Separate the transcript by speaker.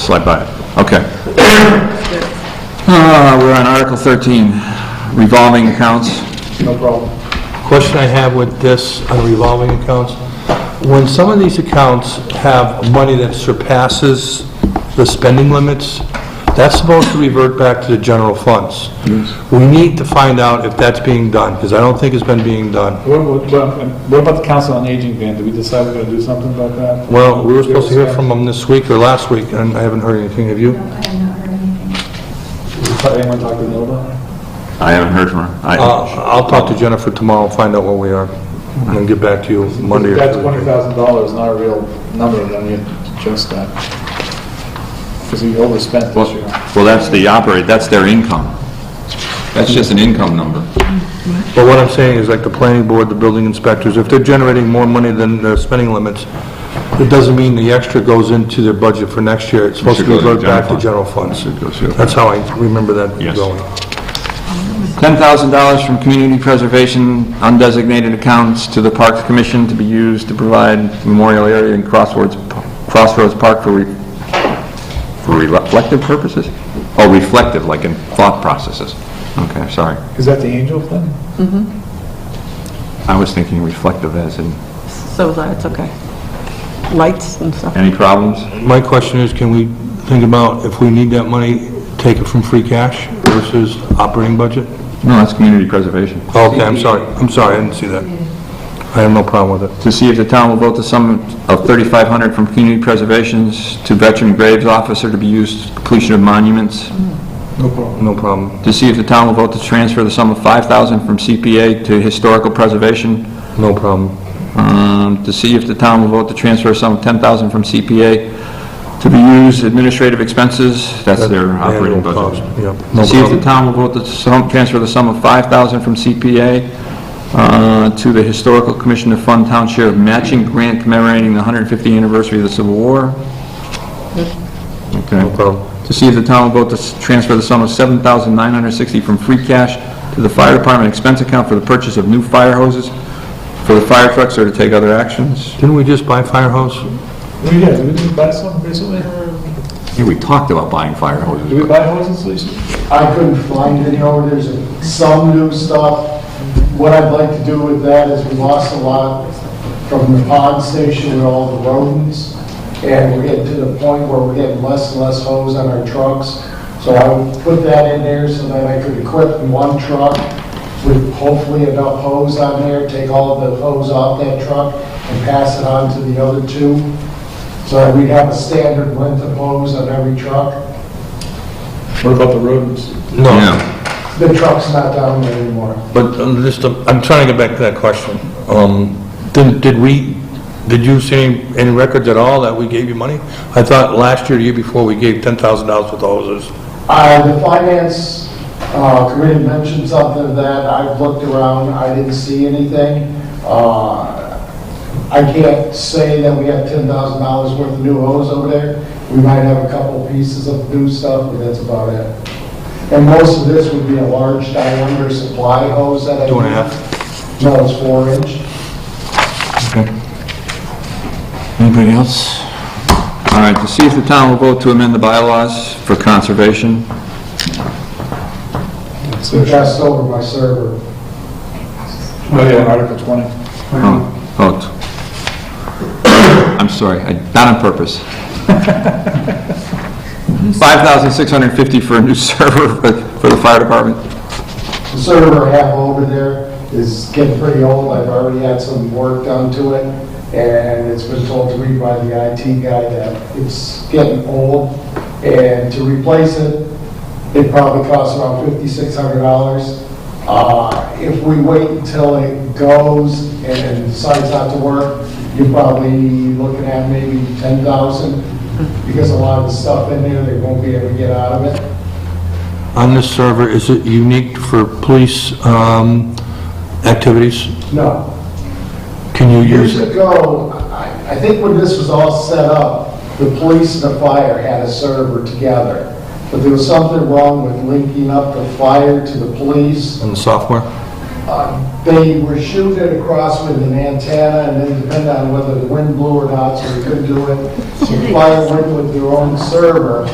Speaker 1: Slide by it, okay. Uh, We're on Article 13, revolving accounts.
Speaker 2: No problem.
Speaker 3: Question I have with this on revolving accounts, when some of these accounts have money that surpasses the spending limits, that's supposed to revert back to the general funds. We need to find out if that's being done, because I don't think it's been being done.
Speaker 2: What, what- what what about the council on aging ban? Did we decide we're gonna do something about that?
Speaker 3: Well, we were supposed to hear from them this week or last week, and I haven't heard anything, have you?
Speaker 4: I have not heard anything.
Speaker 2: Anyone talk to Nilda?
Speaker 1: I haven't heard from her.
Speaker 3: Uh,
Speaker 1: I-
Speaker 3: I'll talk to Jennifer tomorrow, and find out where we are, and then get back to you Monday or
Speaker 2: That
Speaker 3: Tuesday.
Speaker 2: twenty thousand dollars is not a real number, then you adjust that. Because we overspent this
Speaker 1: Well,
Speaker 2: year.
Speaker 1: well, that's the operate, that's their income. That's just an income number.
Speaker 3: But what I'm saying is like the planning board, the building inspectors, if they're generating more money than their spending limits, it doesn't mean the extra goes into their budget for next year. It's supposed to
Speaker 1: should go to the
Speaker 3: revert back to
Speaker 1: general
Speaker 3: general funds.
Speaker 1: It goes here.
Speaker 3: That's how I remember that
Speaker 1: Yes.
Speaker 3: going.
Speaker 1: $10,000 from community preservation undesignated accounts to the Parks Commission to be used to provide memorial area and crossroads, Crossroads Park for, re- for reflective purposes? Oh, reflective, like in thought processes. Okay, sorry.
Speaker 2: Is that the angel thing?
Speaker 1: I was thinking reflective as in,
Speaker 5: So that's okay. Lights and stuff.
Speaker 1: any problems?
Speaker 3: My question is, can we think about if we need that money, take it from free cash versus operating budget? Oh,
Speaker 1: No, that's community preservation.
Speaker 3: Okay, I'm sorry. I'm sorry, I didn't see that. I have no problem with it.
Speaker 1: To see if the town will vote the sum of 3,500 from community preservations to veteran graves officer to be used for completion of monuments.
Speaker 2: No problem.
Speaker 3: No problem.
Speaker 1: To see if the town will vote to transfer the sum of 5,000 from CPA to historical preservation.
Speaker 3: No problem.
Speaker 1: Um, To see if the town will vote to transfer a sum of 10,000 from CPA to be used administrative expenses. That's their operating
Speaker 3: Annual
Speaker 1: budget.
Speaker 3: cost, Yep.
Speaker 1: To
Speaker 3: No
Speaker 1: see if the
Speaker 3: problem.
Speaker 1: town will vote to sum, transfer the sum of 5000 from CPA uh, to the Historical Commission to fund town share of matching grant commemorating the 150th anniversary of the Civil War.
Speaker 3: No
Speaker 1: Okay.
Speaker 3: problem.
Speaker 1: To see if the town will vote to s- transfer the sum of 7960 from free cash to the fire department expense account for the purchase of new fire hoses for the fire trucks or to take other actions.
Speaker 3: Didn't we just buy Firehouse?
Speaker 2: We did, we didn't buy something recently?
Speaker 1: Yeah, we talked about buying fire
Speaker 2: Did we
Speaker 1: hoses.
Speaker 2: buy hoses recently?
Speaker 6: I couldn't find any orders, some new stuff. What I'd like to do with that is we lost a lot from the pond station with all the rodents, and we're getting to the point where we're getting less and less hose on our trucks. So I would put that in there so that I could equip one truck with hopefully enough hose on there, take all of the hose off that truck and pass it on to the other two, so that we'd have a standard length of hose on every truck.
Speaker 2: What about the rodents?
Speaker 3: No.
Speaker 1: Yeah.
Speaker 6: The truck's not down there anymore.
Speaker 3: But um, just, um, I'm trying to get back to that question. Um, Did did we, did you see any- any records at all that we gave you money? I thought last year, the year before, we gave $10,000 worth of hoses.
Speaker 6: Uh, the finance, uh, committee mentioned something of that, I've looked around, I didn't see anything. Uh, I can't say that we have ten thousand dollars worth of new hose over there. We might have a couple pieces of new stuff, but that's about it. And most of this would be a large diameter supply hose that I.
Speaker 3: Two and a half?
Speaker 6: half? No, it's four inch.
Speaker 1: Anybody else? All right, to see if the town will vote to amend the bylaws for conservation.
Speaker 6: We passed over my server.
Speaker 2: Oh, yeah, Article twenty.
Speaker 1: Oh, oh. t- I'm sorry, I- not on purpose. 5,650 for a new server for- for the fire department.
Speaker 6: The server I have over there is getting pretty old, I've already had some work done to it, and it's been told to me by the IT guy that it's getting old, and to replace it, it probably costs around fifty-six hundred dollars. Uh, if we wait until it goes and decides not to work, you're probably looking at maybe ten thousand, because a lot of the stuff in there, they won't be able to get out of it.
Speaker 3: On this server, is it unique for police um, activities?
Speaker 6: No,
Speaker 3: Can you use
Speaker 6: Years
Speaker 3: it?
Speaker 6: ago, I I think when this was all set up, the police and the fire had a server together, but there was something wrong with linking up the fire to the police.
Speaker 3: On the software?
Speaker 6: Um, They were shooting across with an antenna, and then depending on whether the wind blew or not, so we couldn't do it. So the Fire went with their own server,